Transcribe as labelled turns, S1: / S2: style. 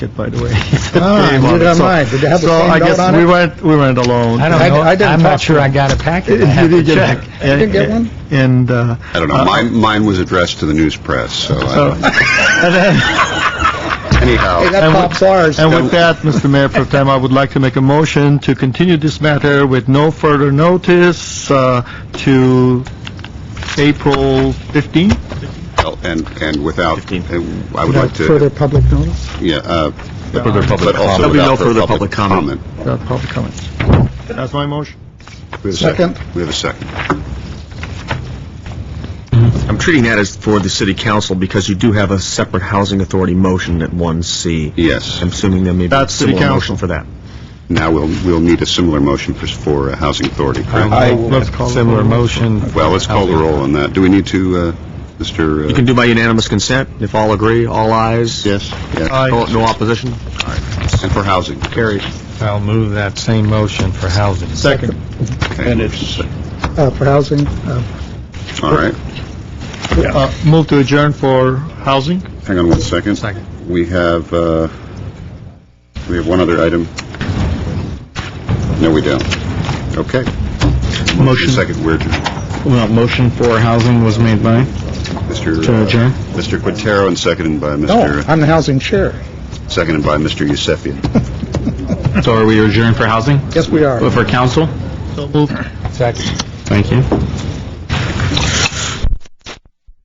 S1: it, by the way.
S2: Ah,
S1: Gave on
S2: neither
S1: it.
S2: am
S1: So-
S2: I. Did they have the
S1: so
S2: same
S1: I
S2: note
S1: guess
S2: on
S1: we
S2: it?
S1: weren't, we weren't alone.
S3: I don't
S2: I-
S3: know,
S2: I didn't
S3: I'm
S2: talk
S3: not sure
S2: to
S3: I
S2: him.
S3: got a packet, I
S1: You
S3: have to
S1: did get
S3: check.
S1: it. And-
S2: didn't get one?
S1: And, uh,
S4: I don't
S5: Uh-huh.
S4: know. Mine, mine was addressed to the news press, so I
S1: so-
S4: don't-
S1: and then-
S5: Oh.
S2: Hey,
S4: anyhow.
S2: that
S1: And we-
S2: pops ours.
S1: and with that, Mr. Mayor Pro Tem, I would like to make a motion to continue this matter with no further notice uh, to April 15th?
S4: And, and without, I would like
S2: Without
S4: to,
S2: further public notice?
S4: yeah, uh,
S1: Further
S4: but also
S5: There'll be no
S4: without
S5: further
S4: further
S5: public
S4: public
S5: comment.
S4: comment.
S1: Without Uh, public comments. That's my motion.
S4: We have a
S2: Second.
S4: We have a second.
S5: I'm treating that as for the city council because you do have a separate housing authority motion at 1C.
S4: Yes.
S5: I'm assuming there may be a
S1: That's city
S5: similar
S1: council.
S5: motion for that.
S4: Now we'll, we'll need a similar motion for, for uh, Housing Authority, correct?
S1: Let's call it.
S3: Similar motion.
S5: Uh-huh.
S4: Well, let's call the roll on that. Do we need to, uh, Mr.? uh,
S5: You can do by unanimous consent, if all agree, all ayes.
S4: Yes, yes.
S1: Aye.
S5: No no opposition?
S4: And for Housing.
S5: Carried.
S3: I'll move that same motion for housing.
S1: Second.
S4: Okay.
S2: Uh, For housing, uh,
S4: All right.
S1: Uh, Move to adjourn for housing?
S4: Hang on one second.
S1: Second.
S4: We have, uh, we have one other item. No, we don't. Okay.
S3: Motion.
S4: Second, we're adjourned.
S3: Well, motion for housing was made by?
S4: Mr.
S3: To adjourn? Oh,
S4: uh, Mr. Quintero and seconded by
S2: no,
S4: Mr.,
S2: I'm the housing chair.
S4: seconded by Mr. Yusefian.
S3: So are we adjourned for housing?
S2: Yes, we are.
S3: For council?
S1: So moved.
S3: Thank you.